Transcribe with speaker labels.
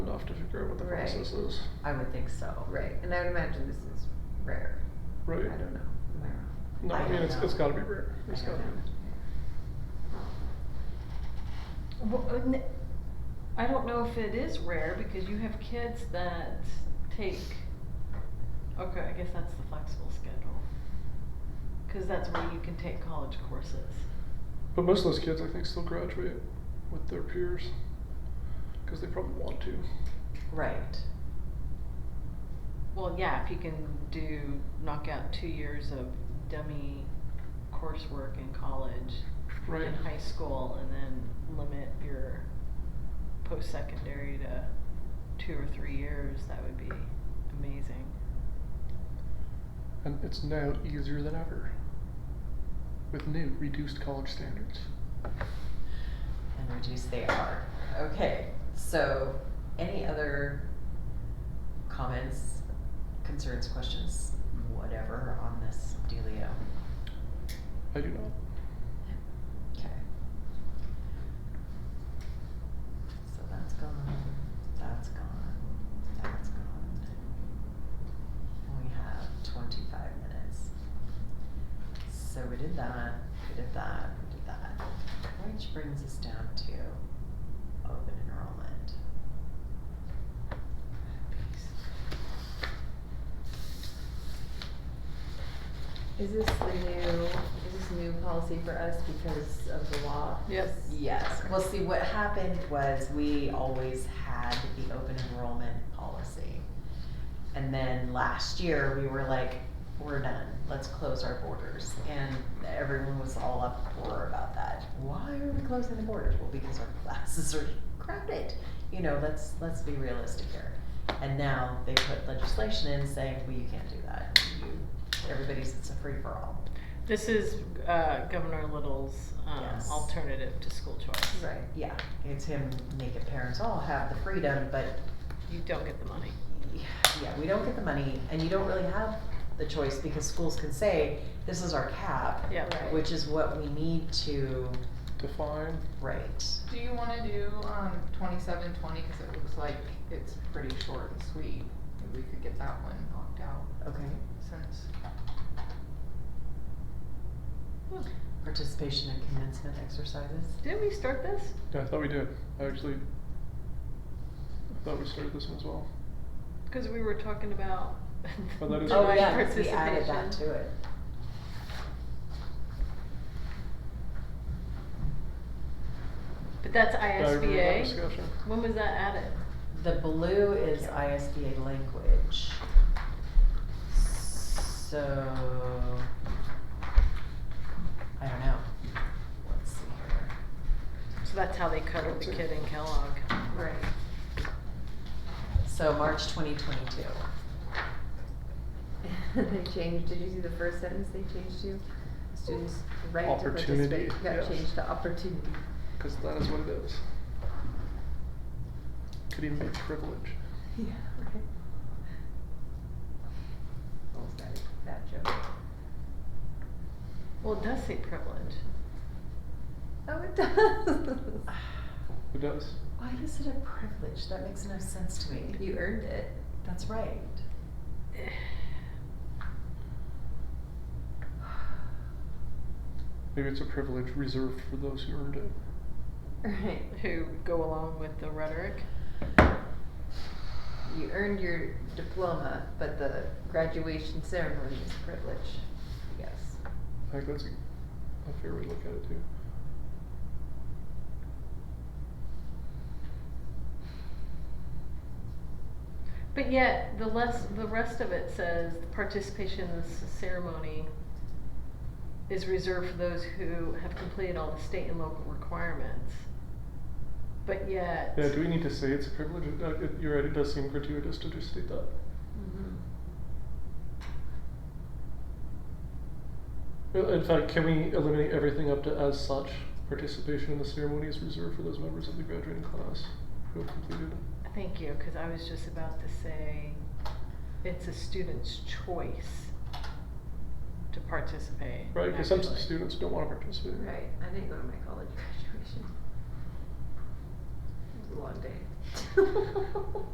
Speaker 1: enough to figure out what the
Speaker 2: Right.
Speaker 1: process is.
Speaker 3: I would think so.
Speaker 2: Right, and I would imagine this is rare.
Speaker 1: Right.
Speaker 2: I don't know, am I wrong?
Speaker 1: No,
Speaker 3: I
Speaker 1: I, mean
Speaker 3: don't
Speaker 1: it's,
Speaker 3: know.
Speaker 1: it's got to be rare.
Speaker 3: I
Speaker 1: It's got
Speaker 3: don't
Speaker 1: to be.
Speaker 3: know.
Speaker 4: Well, uh, n- I don't know if it is rare because you have kids that take, okay, I guess that's the flexible schedule. Cause that's where you can take college courses.
Speaker 1: But most of those kids, I think, still graduate with their peers because they probably want to.
Speaker 3: Right.
Speaker 4: Well, yeah, if you can do, knock out two years of dummy coursework in college,
Speaker 1: Right.
Speaker 4: in high school, and then limit your post-secondary to two or three years, that would be amazing.
Speaker 1: And it's now easier than ever with new reduced college standards.
Speaker 3: And reduce they are. Okay, so any other comments, concerns, questions, whatever on this dealio?
Speaker 1: I do not.
Speaker 3: Okay. So that's gone, that's gone, that's gone. And we have twenty-five minutes. So we did that, we did that, we did that, which brings us down to open enrollment.
Speaker 2: Is this the new, is this new policy for us because of the law?
Speaker 4: Yes.
Speaker 3: Yes, well, see, what happened was we always had the open enrollment policy. And then last year, we were like, we're done, let's close our borders. And everyone was all up for about that. Why are we closing the borders? Well, because our classes are crowded. You know, let's, let's be realistic here. And now they put legislation in saying, well, you can't do that. You- Everybody's, it's a free-for-all.
Speaker 4: This is uh, Governor Little's um,
Speaker 3: Yes.
Speaker 4: alternative to school choice.
Speaker 2: Right.
Speaker 3: Yeah, it's him making parents all have the freedom, but
Speaker 4: You don't get the money.
Speaker 3: yeah, we don't get the money, and you don't really have the choice because schools can say, this is our cap,
Speaker 4: Yeah.
Speaker 2: Right.
Speaker 3: which is what we need to
Speaker 1: Define.
Speaker 3: write.
Speaker 5: Do you wanna do, um, twenty-seven, twenty, cause it looks like it's pretty short and sweet, Maybe we could get that one knocked out
Speaker 3: Okay.
Speaker 5: since.
Speaker 3: Participation in commencement exercises.
Speaker 4: Didn't we start this?
Speaker 1: Yeah, I thought we did. I actually I thought we started this one as well.
Speaker 4: Because we were talking about.
Speaker 1: Oh, that is-
Speaker 3: Oh,
Speaker 4: direct
Speaker 3: yeah, 'cause we added that
Speaker 4: participation.
Speaker 3: to it.
Speaker 4: But that's
Speaker 1: I remember that
Speaker 4: ISBA.
Speaker 1: discussion.
Speaker 4: When was that added?
Speaker 3: The blue is ISBA language. So, I don't know. Let's see here.
Speaker 4: So that's how they cuddled the kid in Kellogg.
Speaker 2: Right.
Speaker 3: So March twenty twenty-two.
Speaker 2: They changed, did you see the first sentence they changed to? Students' right to
Speaker 1: Opportunity,
Speaker 2: participate got
Speaker 1: yes.
Speaker 2: changed to opportunity.
Speaker 1: Because that is what it is. Could even be privilege.
Speaker 2: Yeah, right. What was that, that joke?
Speaker 4: Well, it does say privilege.
Speaker 2: Oh, it does.
Speaker 1: It does.
Speaker 3: Why is it a privilege? That makes no sense to me.
Speaker 2: You earned it.
Speaker 3: That's right.
Speaker 1: Maybe it's a privilege reserved for those who earned it.
Speaker 2: Right.
Speaker 4: Who go along with the rhetoric?
Speaker 2: You earned your diploma, but the graduation ceremony is a privilege, I guess.
Speaker 1: I think that's a, a fair way to look at it too.
Speaker 4: But yet, the less, the rest of it says participation in this ceremony is reserved for those who have completed all the state and local requirements. But yet.
Speaker 1: Yeah, do we need to say it's a privilege? It- uh, it- You're right, it does seem gratuitous to just state that.
Speaker 2: Mm-hmm.
Speaker 1: Uh, In fact, can we eliminate everything up to as such? Participation in the ceremony is reserved for those members of the graduating class who have completed.
Speaker 4: Thank you, because I was just about to say, it's a student's choice to participate.
Speaker 1: Right, because some
Speaker 4: actually.
Speaker 1: students don't want to participate.
Speaker 2: Right. I didn't go to my college graduation. It was a long day.